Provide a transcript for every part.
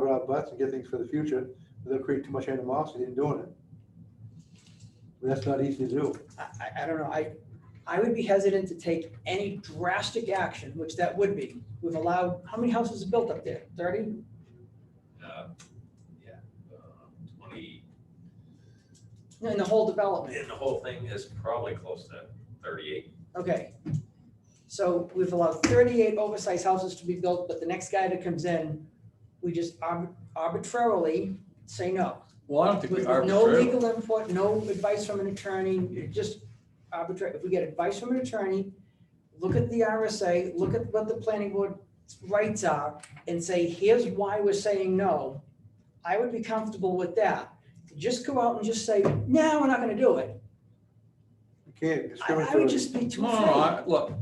our butts and get things for the future, without creating too much animosity in doing it. But That's not easy to do. I, I- I don't know, I, I would be hesitant to take any drastic action, which that would be. We've allowed, how many houses are built up there? Thirty? uh, yeah, uh, twenty, In the whole development, and the whole thing is probably close to thirty-eight. okay. So we've allowed thirty-eight oversized houses to be built, but the next guy that comes in, we just arb- arbitrarily say no. Well, I don't think we With with no arbitrarily, legal input, no advice from an attorney, it just arbitrary, if we get advice from an attorney, look at the RSA, look at what the planning board rights are, and say, here's why we're saying no, I would be comfortable with that. Just go out and just say, no, we're not gonna do it. You can't I, discriminate. I would just be too no, no, afraid. I, look,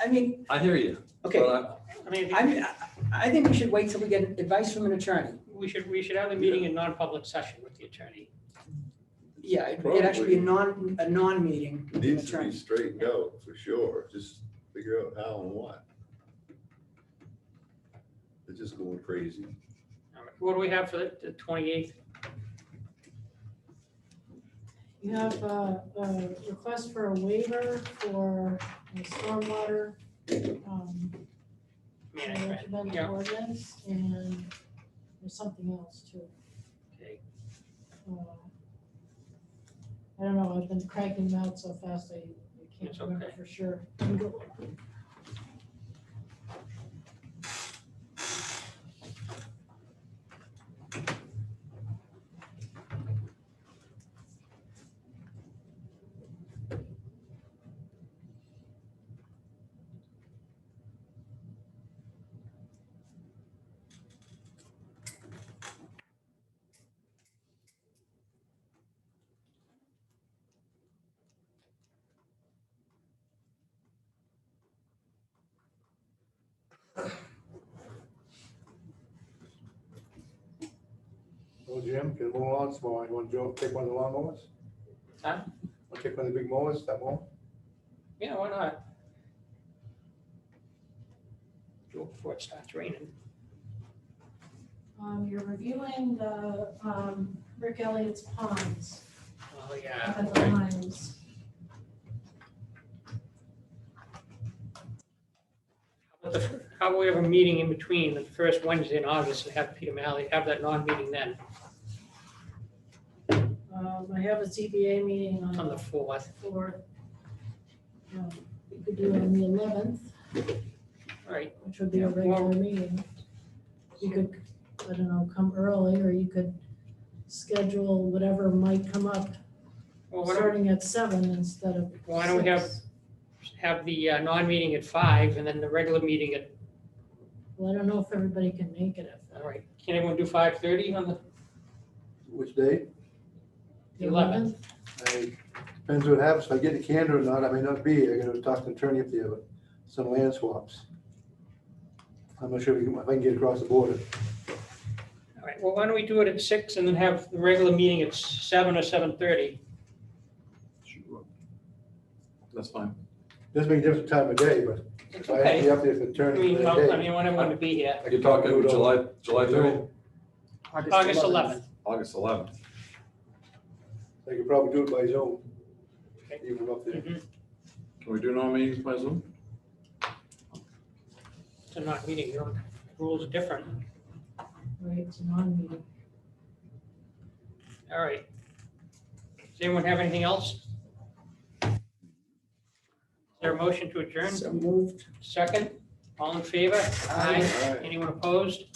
I mean, I hear you. okay, but I- I mean, I I mean, I, I think we should wait till we get advice from an attorney. we should, we should have the meeting in non-public session with the attorney. Yeah, it'd actually be a non, a non-meeting with an Needs to attorney. be straightened out for sure. Just figure out how and what. They're just going crazy. All right, What do we have for the- the twenty-eighth? You have a, a request for a waiver for the stormwater, um, Management, recommended yeah. ordinance, and there's something else too. Okay. Uh, I don't know, I've been cranking them out so fast, I I It's can't remember okay. for sure. Well, Jim, get a little lawn mowing. You want to take one of the lawn mowers? Huh? Want to take one of the big mowers, that one? Yeah, why not? Do it before it starts raining. Um, you're reviewing the, um, Rick Elliott's ponds, Oh, yeah. at the lines. But the- How about we have a meeting in between the first Wednesday in August and have Peter Malley have that non-meeting then Um, I have a ZBA meeting on on the the fourth. fourth. Um, We could do it on the eleventh. All right, which would be a Yeah. regular meeting. You could, I don't know, come early, or you could schedule whatever might come up, well, why don't starting at seven instead of. Why don't we have- six. we have the uh, non-meeting at five and then the regular meeting at, Well, I don't know if everybody can make it at all right, can everyone do five thirty on the, Which day? the 11th. eleventh. I, depends what happens. If I get the candor or not, I may not be. here. I'm gonna talk to the attorney up there, but some land swaps. I'm not sure if we can- if I can get across the border. all right, well, why don't we do it at six and then have the regular meeting at seven or seven thirty? Sure. That's fine. Doesn't make a difference time of day, but It's if I have to okay. be up there for the I attorney mean, for that well, I day. mean, want everyone to be here. I could talk Do it on- to July, July thirty, August eleventh. August eleventh. They could probably do it by Zoom. Even up there. Mhm. Can we do non meetings by Zoom? It's a non-meeting, your rules are different. Right, it's a non-meeting. All right. Does anyone have anything else? Is there a motion to adjourn? So moved. Second, all in favor? Aye. All right. Anyone opposed?